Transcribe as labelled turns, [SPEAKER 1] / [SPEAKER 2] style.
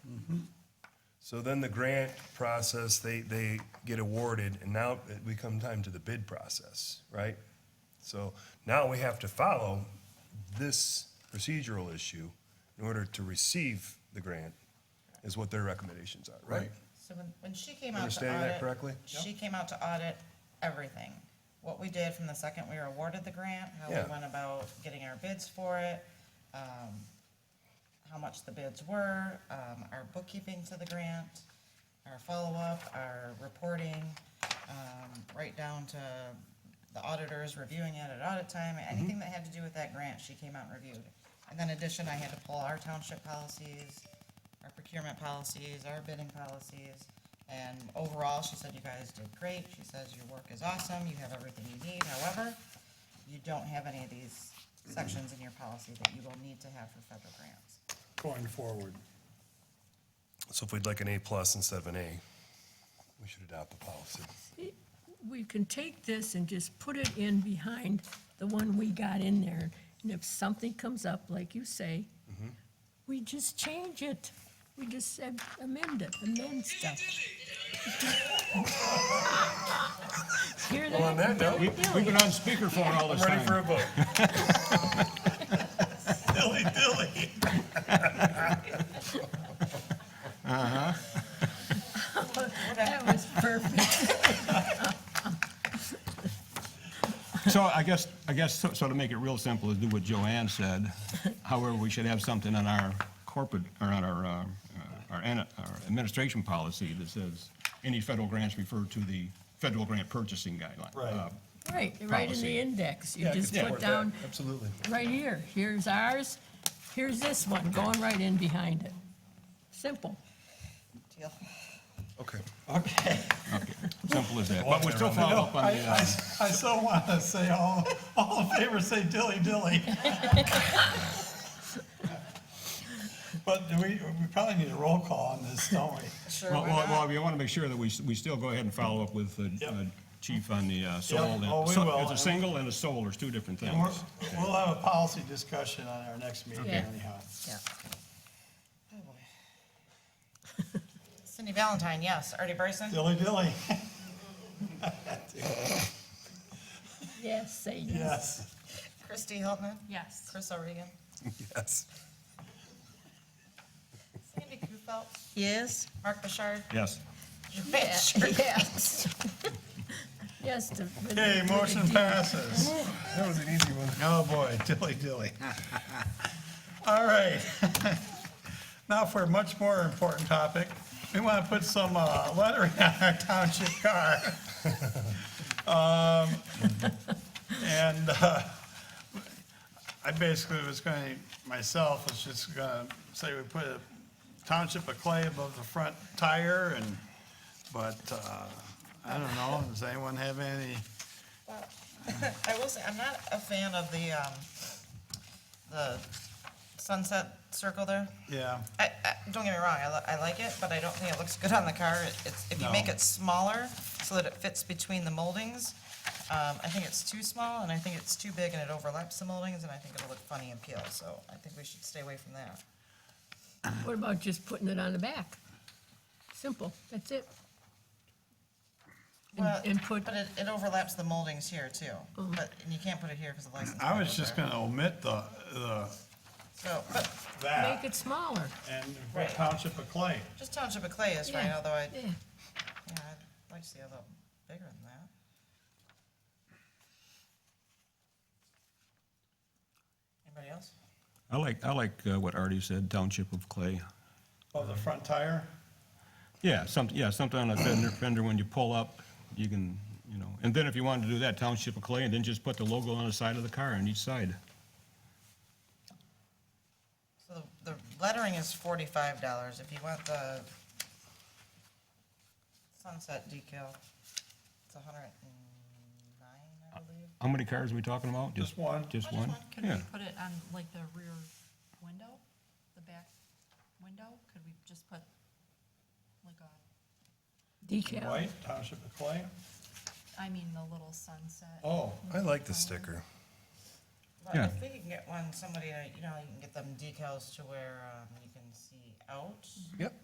[SPEAKER 1] So then the grant process, they, they get awarded, and now it- we come time to the bid process, right? So now we have to follow this procedural issue in order to receive the grant, is what their recommendations are, right?
[SPEAKER 2] Right.
[SPEAKER 3] So when, when she came out to
[SPEAKER 1] Understanding that
[SPEAKER 3] audit.
[SPEAKER 1] correctly?
[SPEAKER 3] She came out to audit everything. What we did from the second we were awarded the grant, how
[SPEAKER 1] Yeah.
[SPEAKER 3] we went about getting our bids for it, um, how much the bids were, um, our bookkeeping to the grant, our follow-up, our reporting, um, right down to the auditors reviewing it at audit time, anything that had to do with that grant, she came out and reviewed. And then in addition, I had to pull our township policies, our procurement policies, our bidding policies. And overall, she said, you guys did great. She says, your work is awesome. You have everything you need. However, you don't have any of these sections in your policy that you will need to have for federal grants.
[SPEAKER 2] going forward.
[SPEAKER 1] So if we'd like an A plus instead of an A, we should adopt the policy.
[SPEAKER 4] we can take this and just put it in behind the one we got in there. And if something comes up, like you say, we just change it. We just said amend it, amend stuff. Hear that?
[SPEAKER 1] Well, on that note,
[SPEAKER 4] Billy,
[SPEAKER 1] we-
[SPEAKER 4] Billy?
[SPEAKER 2] We've been on speakerphone all
[SPEAKER 1] I'm
[SPEAKER 2] this
[SPEAKER 1] ready for
[SPEAKER 2] time.
[SPEAKER 1] a vote. Dilly dilly.
[SPEAKER 4] That was perfect.
[SPEAKER 2] So I guess, I guess, so so to make it real simple, is do what Joanne said. However, we should have something on our corporate, or on our, uh, our ana- our administration policy that says any federal grants refer to the federal grant purchasing guideline.
[SPEAKER 1] Right.
[SPEAKER 2] Uh,
[SPEAKER 4] Right, right in
[SPEAKER 2] Policy.
[SPEAKER 4] the index. You
[SPEAKER 1] Yeah, I could
[SPEAKER 4] just
[SPEAKER 1] support
[SPEAKER 4] put
[SPEAKER 1] that,
[SPEAKER 4] down,
[SPEAKER 1] Absolutely.
[SPEAKER 4] right here, here's ours, here's this one, going right in behind it. Simple.
[SPEAKER 3] Deal.
[SPEAKER 1] Okay.
[SPEAKER 5] Okay.
[SPEAKER 2] Simple as that.
[SPEAKER 1] Well,
[SPEAKER 2] But we still follow up on
[SPEAKER 5] I,
[SPEAKER 2] the,
[SPEAKER 5] I,
[SPEAKER 2] uh,
[SPEAKER 5] I still want to say all, all in favor, say dilly dilly. But do we, we probably need a roll call on this, don't we?
[SPEAKER 3] Sure,
[SPEAKER 2] well,
[SPEAKER 3] why
[SPEAKER 2] well, well,
[SPEAKER 3] not?
[SPEAKER 2] we want to make sure that we, s- we still go ahead and follow up with the
[SPEAKER 5] Yep.
[SPEAKER 2] uh, chief on the uh, soul. and-
[SPEAKER 5] oh, we
[SPEAKER 2] so-
[SPEAKER 5] will.
[SPEAKER 2] It's a single and a soul, there's two different
[SPEAKER 5] And we're,
[SPEAKER 2] things.
[SPEAKER 5] we'll have a policy discussion on our next meeting
[SPEAKER 4] Okay.
[SPEAKER 5] anyhow.
[SPEAKER 4] Yeah.
[SPEAKER 3] Oh, boy. Cindy Valentine, yes. Artie Bryson?
[SPEAKER 5] Dilly dilly,
[SPEAKER 4] Yes, say yes.
[SPEAKER 5] yes.
[SPEAKER 3] Christy Hilton?
[SPEAKER 4] Yes.
[SPEAKER 3] Chris O'Regan?
[SPEAKER 1] Yes.
[SPEAKER 3] Sandy Kufelt? Yes. Mark Bouchard?
[SPEAKER 2] Yes.
[SPEAKER 3] Joanne Sherman?
[SPEAKER 4] Yes. Yes. to-
[SPEAKER 5] Okay, motion passes.
[SPEAKER 1] That was an easy one.
[SPEAKER 5] Oh, boy, dilly dilly. All right. Now for a much more important topic, we want to put some uh, lettering on our township car. Um, And uh, I basically was going, to myself was just going to say we put a township of clay above the front tire and, but uh, I don't know, does anyone have any?
[SPEAKER 3] I will say, I'm not a fan of the, um, the sunset circle there.
[SPEAKER 5] Yeah,
[SPEAKER 3] I, I, don't get me wrong, I, li- I like it, but I don't think it looks good on the car. It- It's, if you make
[SPEAKER 5] No.
[SPEAKER 3] it smaller so that it fits between the moldings, um, I think it's too small and I think it's too big and it overlaps the moldings and I think it'll look funny and peel, so I think we should stay away from that.
[SPEAKER 4] What about just putting it on the back? Simple, that's it. And-
[SPEAKER 3] Well,
[SPEAKER 4] And put, Oh.
[SPEAKER 3] But it, it overlaps the moldings here too, but, and you can't put it here because the license.
[SPEAKER 5] I
[SPEAKER 3] plate
[SPEAKER 5] was
[SPEAKER 3] goes
[SPEAKER 5] just
[SPEAKER 3] there.
[SPEAKER 5] going to omit the, the
[SPEAKER 3] So, but
[SPEAKER 4] make
[SPEAKER 5] that
[SPEAKER 4] it smaller.
[SPEAKER 5] and
[SPEAKER 3] Right.
[SPEAKER 5] Township of Clay.
[SPEAKER 3] just Township of Clay is right,
[SPEAKER 4] Yeah.
[SPEAKER 3] although I, yeah,
[SPEAKER 4] Yeah,
[SPEAKER 3] I'd like to see a little bigger than that. Anybody else?
[SPEAKER 2] I like, I like uh, what Artie said, township of clay.
[SPEAKER 5] Of Oh, the front tire?
[SPEAKER 2] Yeah, some, yeah, something on a fender, fender when you pull up, you can, you know, and then if you wanted to do that, township of clay, and then just put the logo on the side of the car on each side.
[SPEAKER 3] So the the lettering is forty-five dollars. If you want the sunset decal, it's a hundred and nine, I believe.
[SPEAKER 2] How many cars are we talking about?
[SPEAKER 5] Just one.
[SPEAKER 2] Just one?
[SPEAKER 6] Could we
[SPEAKER 2] Yeah.
[SPEAKER 6] put it on like the rear window, the back window? Could we just put like a,
[SPEAKER 4] decal.
[SPEAKER 5] White, Township of Clay.
[SPEAKER 6] I mean, the little sunset?
[SPEAKER 5] Oh,
[SPEAKER 1] I like the sticker.
[SPEAKER 3] But
[SPEAKER 2] Yeah.
[SPEAKER 3] if we can get one, somebody, uh, you know, you can get them decals to where, um, you can see out.
[SPEAKER 1] Yep.